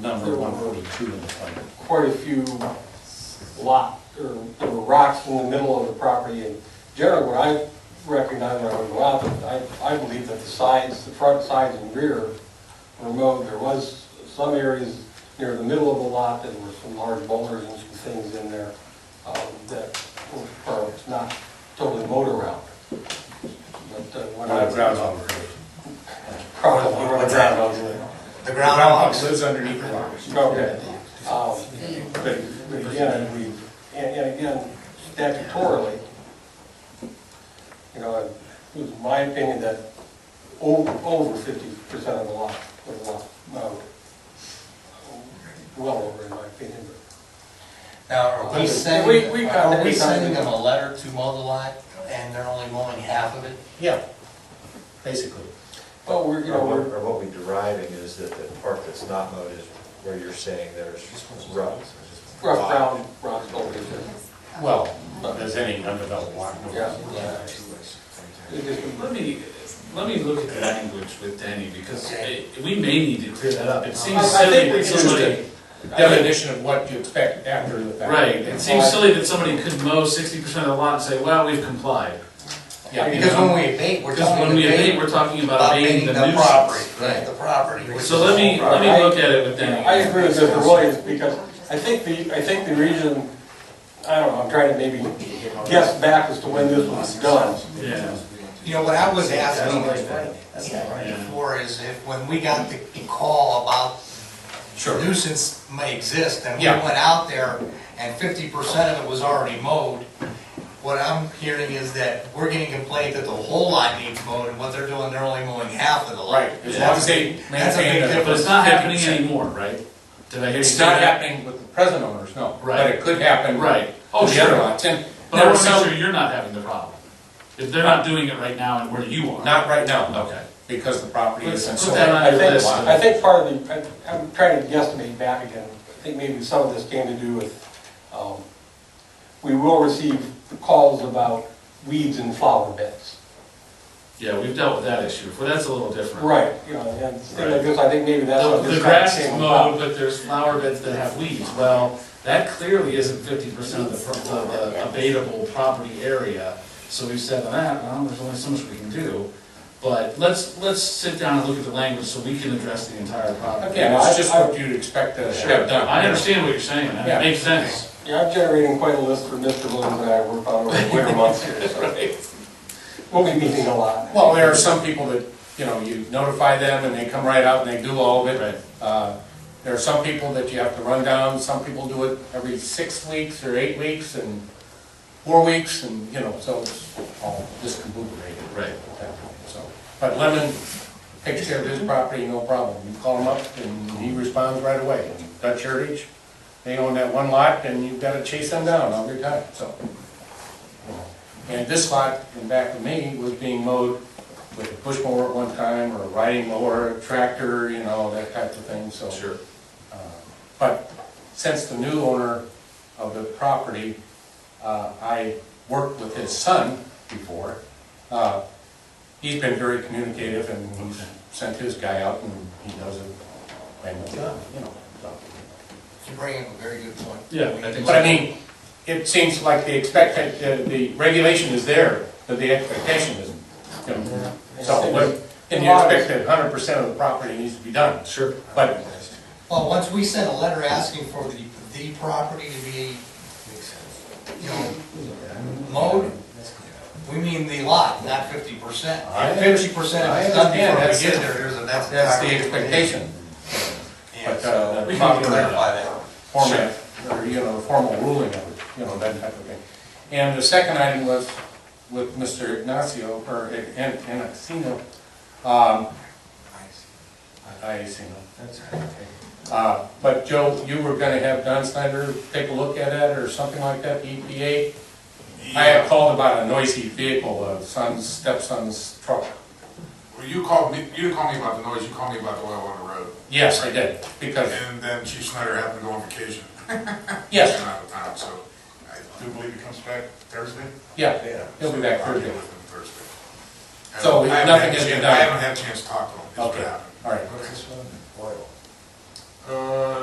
number one forty-two in the title. quite a few lot, or there were rocks in the middle of the property, and generally what I recognize when I would go out, I, I believe that the sides, the front sides and rear were mowed, there was some areas near the middle of the lot that were some large boulders and some things in there, um, that were perhaps not totally mowed around. But uh, when I. Probably where the ground was there. The The groundhog. groundhog lives underneath the rocks. Okay. Um, But but again, we, and and again, statutorily, you know, it was my opinion that o- over fifty percent of the lot was lot mowed. Well over, in my opinion, Now, are we We- we sending, got are we that. sending them a letter to mow the lot and they're only mowing half of it? Yeah, basically. but, well, we're, you Or know, what- we're, or what we're deriving is that the part that's not mowed is where you're saying there's rough. rough ground, rough over there. Well, But, There's any undeveloped lot. number. Yeah. it Yeah. just- Let me, let me look at the language with Danny, because it- we may need to clear that up. It I- I seems silly think we that somebody, definition of what you expect after the fact. right, it seems silly that somebody could mow sixty percent of the lot and say, well, we've complied. Yeah, Because when we abate, we're Because when talking we abate, abate we're talking about about abating abating the the property, nuisance. right, the property. which So is let the me, whole let me property. look at it with Danny. I agree with Mr. Williams, because I think the, I think the reason, I don't know, I'm trying to maybe guess back as to when this was done. Yeah, property. You know, what I was asking right. before is if, when we got the the call about sure. nuisance may exist, and we Yeah. went out there, and fifty percent of it was already mowed. What I'm hearing is that we're getting complaint that the whole lot needs mowed, and what they're doing, they're only mowing half of the lot. Right, as long as they That's a big maintain but the- difference. it's not happening anymore, right? Did I hear you It's say not that? happening with the present owners, no. But Right. it could happen. Right. Oh, Oh, the other sure. lots. And But I there were want to make some, sure you're not having the problem. If they're not doing it right now and where you are. not right now, no. Okay. Because the property Let's isn't put sold. that on I your think, list. I think part of the, I- I'm trying to guesstimate back again, I think maybe some of this came to do with, um, we will receive calls about weeds in flower beds. Yeah, we've dealt with that issue, but that's a little different. Right, you know, and things like this, I think maybe that's The what the this kind of grass is came mowed, about. but there's flower beds that have weeds. Well, that clearly isn't fifty percent of the, pro- of the abatable property area. So we said, ah, well, there's only so much we can do. But let's, let's sit down and look at the language so we can address the entire problem. Yeah, it's just what you'd expect to have done. I understand what you're saying, Yeah. that makes sense. Yeah, I'm generating quite a list for Mr. Williams and I work on over the winter months here, so we'll be meeting a lot. Well, there are some people that, you know, you notify them and they come right out and they do all of Right. it. Uh, There are some people that you have to run down, some people do it every six weeks or eight weeks and four weeks and, you know, so it's all discombobulated. Right. So, But Lemon takes care of his property, no problem. You call him up and he responds right away. Dutch Heritage, they own that one lot and you've got to chase them down all the time, so. And this lot in back of me was being mowed with a push mower at one time, or a riding mower, a tractor, you know, that type of thing, so. Uh, Sure. But since the new owner of the property, uh, I worked with his son before, uh, he's been very communicative and he's sent his guy out and he does it. And, you know, so. You bring up a very good point. Yeah, I think so. But I mean, it seems like the expect, uh, the regulation is there, but the expectation isn't. you know. So, what- and you expect that hundred percent of the property needs to be done, Sure. but Well, once we send a letter asking for the, the property to be, you know, mowed, we mean the lot, not fifty percent. I- Fifty percent of it's I done understand, before that's we get it. there, there's a, that's. that's the expectation. Yeah, But, so uh, We not can the clarify that. format, or, you know, the formal ruling of it, you know, that type of thing. And the second item was with Mr. Ignacio, or An- Anacino, um, I see, uh, but Joe, you were gonna have Don Snyder take a look at it or something like that, EPA? I had called about a noisy vehicle, a son's, stepson's truck. Well, you called me, you didn't call me about the noise, you called me about the oil on the road. Yes, I did, because, And then Chief Snyder happened to go on vacation. Yes. And out of town, so I do believe he comes back Thursday. yeah, he'll be back I'll Thursday. with him Thursday. So I haven't nothing had a has been chance- done? I haven't had a chance to talk to him, is what Okay, happened. all right. What's this one? Oil. Uh,